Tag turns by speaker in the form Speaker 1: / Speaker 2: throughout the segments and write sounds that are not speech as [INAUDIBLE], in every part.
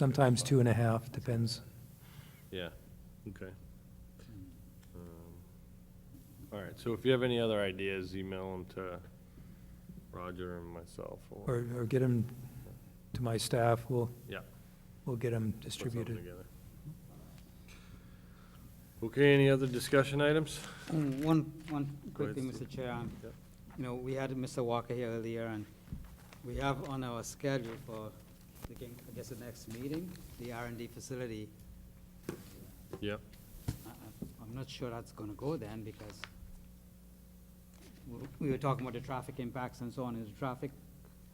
Speaker 1: sometimes two and a half, depends.
Speaker 2: Yeah, okay. Um, All right, so if you have any other ideas, email them to Roger and myself. or-
Speaker 1: Or, or get them to my staff, we'll,
Speaker 2: Yeah. put
Speaker 1: we'll get them
Speaker 2: something
Speaker 1: distributed.
Speaker 2: together. Okay, any other discussion items?
Speaker 3: Um, One, one quick
Speaker 2: ahead,
Speaker 3: thing,
Speaker 2: Steve.
Speaker 3: Mr. Chair. um,
Speaker 2: Yep.
Speaker 3: You know, we had Mr. Walker here earlier, and we have on our schedule for, the game- I guess, the next meeting, the R and D facility.
Speaker 2: Yep,
Speaker 3: I- I- I'm not sure that's gonna go then, because we- we were talking about the traffic impacts and so on. Is the traffic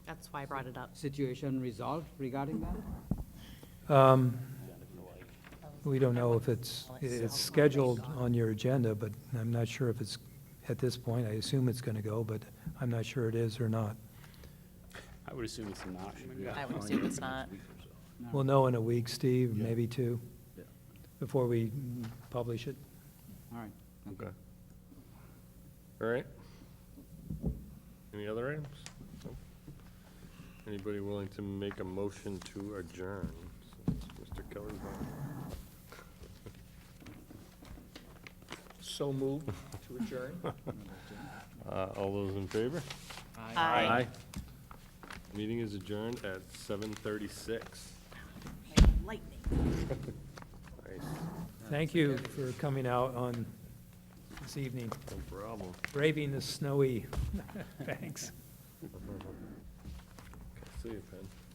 Speaker 4: That's why I brought it up.
Speaker 3: situation resolved regarding that?
Speaker 1: Um, We don't know if it's, it's scheduled on your agenda, but I'm not sure if it's, at this point, I assume it's gonna go, but I'm not sure it is or not.
Speaker 5: I would assume it's not.
Speaker 4: I would assume it's not.
Speaker 1: We'll know in a week, Steve, maybe two, before we publish it.
Speaker 3: All right.
Speaker 2: okay. All right. Any other items? No? Anybody willing to make a motion to adjourn? since Mr. Kelly's not here?
Speaker 6: So moved to adjourn.
Speaker 2: [LAUGHS] Uh, All those in favor?
Speaker 4: Aye.
Speaker 2: Meeting is adjourned at seven thirty-six.
Speaker 4: Lightning.
Speaker 2: Nice,
Speaker 1: Thank you for coming out on this evening,
Speaker 2: no problem.
Speaker 1: braving
Speaker 2: [LAUGHS]
Speaker 1: the snowy. Thanks.
Speaker 2: See you, Penn.